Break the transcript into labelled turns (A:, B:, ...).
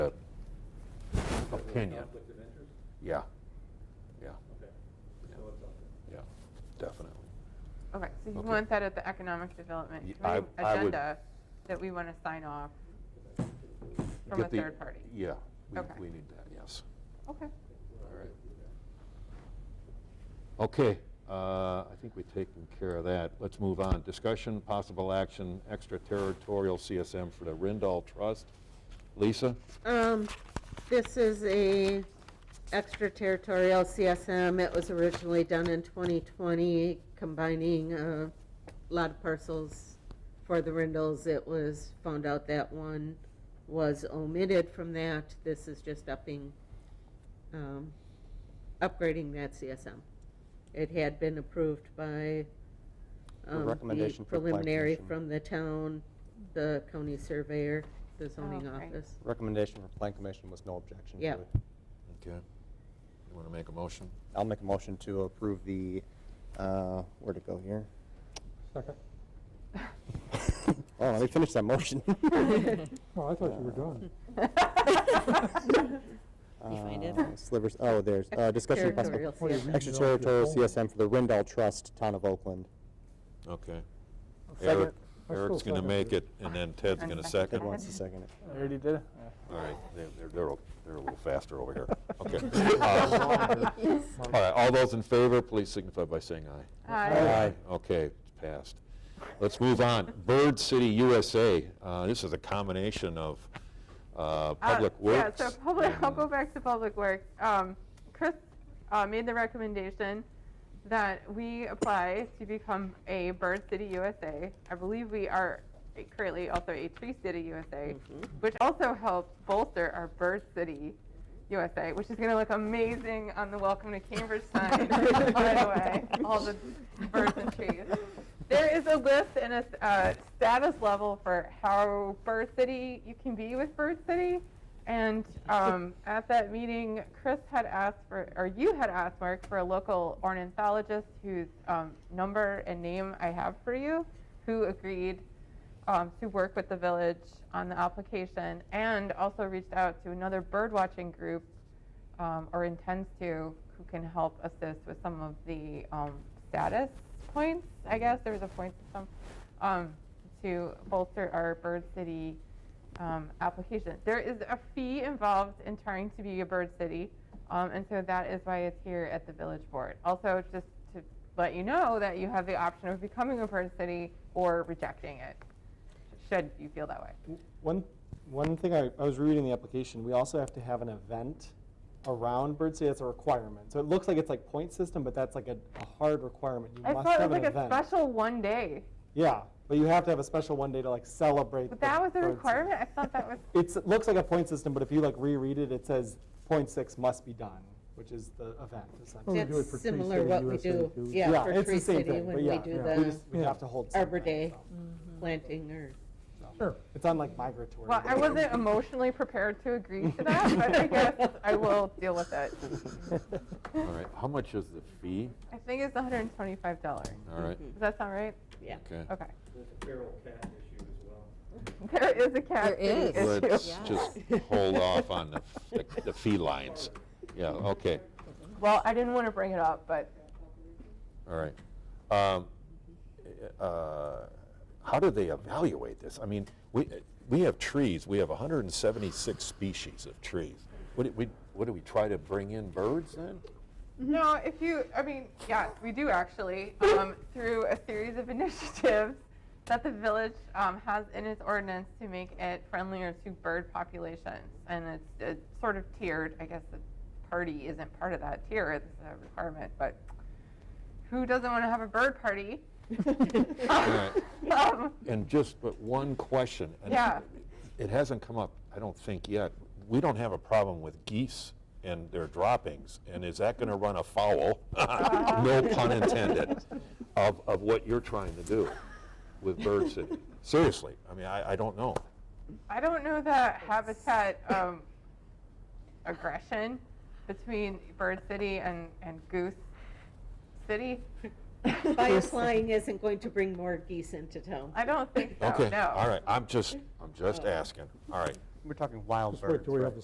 A: opinion.
B: Conflict of interest?
A: Yeah, yeah,
B: Okay.
A: Yeah.
B: So it's out there.
A: yeah, definitely.
C: Okay, so you
A: Okay.
C: want that at the Economic Development
A: Ye- I-
C: Committee
A: I would-
C: agenda that we want to sign off from a
A: Get the-
C: third party?
A: Yeah, we,
C: Okay.
A: we need that, yes.
C: Okay.
A: All right. Okay, uh, I think we've taken care of that. Let's move on. Discussion, possible action, extraterritorial CSM for the Rindall Trust. Lisa?
D: Um, this is a extraterritorial CSM. It was originally done in 2020, combining uh, a lot of parcels for the Rindles. It was found out that one was omitted from that. This is just upping, um, upgrading that CSM. It had been approved by
E: A
D: um, the
E: recommendation for Plan
D: preliminary
E: Commission.
D: from the town, the county surveyor, the zoning
C: okay.
D: office.
E: Recommendation for Plan Commission was no objection to
D: Yeah.
E: it.
A: Okay. You want to make a motion?
E: I'll make a motion to approve the, uh, where'd it go here?
F: Second.
E: Oh, let me finish that motion.
F: Oh, I thought you were done.
D: You find it?
E: Uh, Slivers, oh, there's, uh, discussion of possible
D: Extraterritorial
F: What are you
D: CSM.
F: reading off your
E: extraterritorial
F: phone?
E: CSM for the Rindall Trust, Town of Oakland.
A: Okay.
F: Second.
A: Eric,
F: I still
A: Eric's going to
F: second
A: make
F: it.
A: it, and then Ted's going to
C: Second.
E: Ted
A: second. All
E: wants to second it.
G: I already did it? Yeah.
A: right, they're, they're- they're, a- they're a little faster over here. Okay. Uh, All right, all those in favor, please signify by saying aye.
C: Aye.
A: Okay, it's passed. Let's move on. Bird City USA. Uh, This is a combination of uh,
C: Uh,
A: Public Works.
C: Yeah, so public, I'll
A: and- uh,
C: go back to Public Works. Um, Chris uh, made the recommendation that we apply to become a Bird City USA. I believe we are currently also a Tree City USA,
A: Mm-hmm.
C: which also helps bolster our Bird City USA, which is going to look amazing on the Welcome to Cambridge sign, by the way, all the birds and trees. There is a list and a uh, status level for how Bird City you can be with Bird City. And um, at that meeting, Chris had asked for, or you had asked, Mark, for a local ornithologist whose um, number and name I have for you, who agreed um, to work with the village on the application and also reached out to another bird watching group um, or intends to who can help assist with some of the um, status points, I guess. There was a point system um, to bolster our Bird City um, application. There is a fee involved in trying to be a Bird City, um, and so that is why it's here at the Village Board. Also, just to let you know that you have the option of becoming a Bird City or rejecting it, should you feel that way.
G: One, one thing I, I was reading the application, we also have to have an event around Bird City. That's a requirement. So it looks like it's like point system, but that's like a, a hard requirement. You
C: I
G: must
C: thought it
G: have
C: was
G: an
C: like a
G: event.
C: special one day,
G: Yeah, but you have to have a special one day to like celebrate.
C: but
G: the
C: that was a
G: Bird City.
C: requirement. I thought that was
G: It's, it looks like a point system, but if you like reread it, it says point six must be done, which is the event
F: Well,
G: essentially.
F: we do it
D: That's
F: for Tree
D: similar
F: City
D: what we
F: USA
D: do,
F: too.
D: yeah, for
G: it's the
D: Tree
G: same
D: City
G: thing,
D: when
G: but
D: we
G: yeah,
D: do
G: yeah. We
D: the
G: just- we have to hold
D: Arbor
G: something,
D: Day
G: so.
D: planting or.
F: Sure.
G: It's on like migratory.
C: Well, I
G: birds.
C: wasn't emotionally prepared to agree to that, but I guess I will deal with it.
A: All right, how much is the fee?
C: I think it's $125. Does
A: All right,
C: that sound right?
D: Yeah.
A: okay.
C: Okay.
B: There's a feral cat issue as well.
C: There is a cat
D: There
C: fee
D: is.
C: issue.
A: Let's just hold off on the, the- the fee lines. Yeah, okay,
C: Well, I didn't want to bring it up, but
A: all right. Um, uh, How do they evaluate this? I mean, we, we have trees, we have 176 species of trees. What, do we, what do we try to bring in birds then?
C: No, if you, I mean, yeah, we do actually, um, through a series of initiatives that the village um, has in its ordinance to make it friendlier to bird populations. And it's, it's sort of tiered. I guess the party isn't part of that tier, it's a requirement, but who doesn't want to have a bird party? Um,
A: And just but one question. and
C: Yeah.
A: It hasn't come up, I don't think yet. We don't have a problem with geese and their droppings, and is that going to run afoul, no pun intended, of, of what you're trying to do with Bird City? Seriously, I mean, I, I don't know.
C: I don't know the habitat um, aggression between Bird City and, and Goose City.
D: By applying isn't going to bring more geese into town.
C: I don't think so.
A: Okay,
C: Oh, No.
A: all right, I'm just, I'm just asking, all right.
E: We're talking wild
F: Just wait
E: birds,
F: till we
E: right?
F: have the